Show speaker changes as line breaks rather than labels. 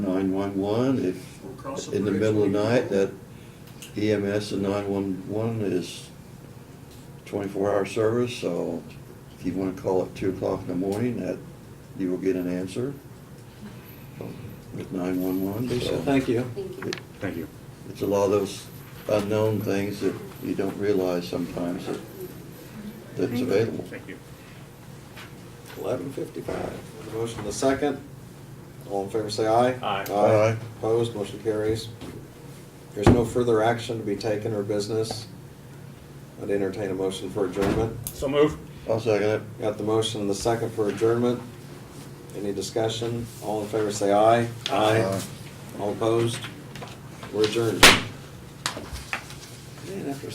911,
We'll cross
if,
the
in the
bridge
middle of
when
the
we
night, that
get
EMS and 911 is 24-hour service, so if you want to call at 2 o'clock in the morning, that, you will get an answer with 911,
So,
so
thank you.
Thank you.
it-
Thank you.
it's a lot of those unknown things that you don't realize sometimes that, that's available.
Thank you.
Eleven fifty-five. Motion in the second. All in favor, say aye.
Aye.
Aye.
Opposed, motion carries. There's no further action to be taken or business. I'd entertain a motion for adjournment.
So move.
I'll second it.
Got the motion in the second for adjournment. Any discussion? All in favor, say aye.
Aye.
All opposed? We're adjourned. Man, after